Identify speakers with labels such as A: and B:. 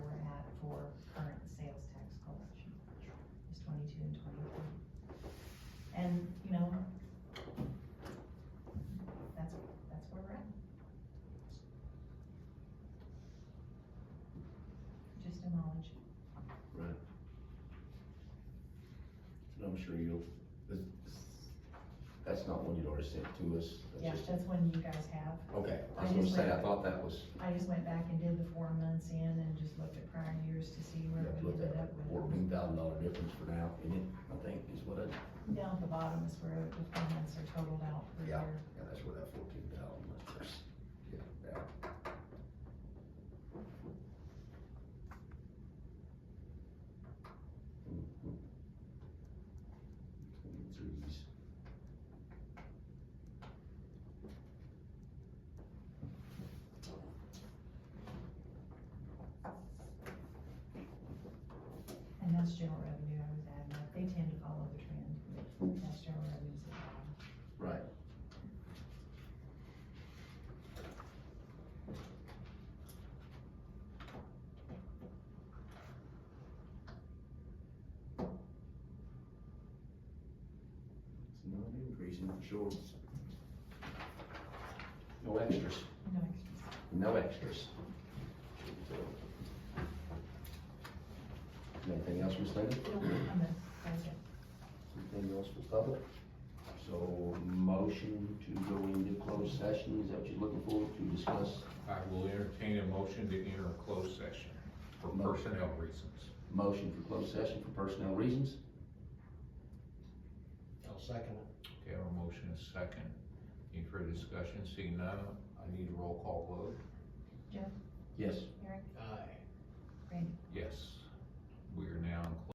A: knowledge.
B: Right. And I'm sure you'll, this- this- that's not one you'd already sent to us. that's
A: Yeah,
B: just-
A: that's one you guys have.
B: Okay, I
A: I
B: was gonna
A: just
B: say,
A: went-
B: I thought that was,
A: I just went back and did the four months in and just looked at prior years to see
B: you
A: where
B: have to
A: we
B: look
A: ended
B: at
A: up
B: a
A: with.
B: fourteen thousand dollar difference for now, in it, I think, is what I,
A: Down at the bottom is where the four months are totaled out for
B: Yeah.
A: your,
B: yeah, that's where that fourteen thousand was. Yeah, yeah. Mm-hmm. Twenty-threes.
A: and that's general revenue I was adding up. They tend to follow the trend. That's general revenues. at the bottom.
B: Right. It's not increasing for sure. No extras.
A: No extras.
B: No extras. Anything else, Ms. Linda?
A: I'm gonna, that's it.
B: Anything else for public? So motion to go into closed session, is that what you're looking for, to discuss
C: I will entertain a motion to enter a closed session for personnel reasons.
B: motion for closed session for personnel reasons?
D: I'll second it.
C: Okay, our motion is second. Any further discussion? Seeing none, I need a roll call vote.
B: Yes.
D: Aye.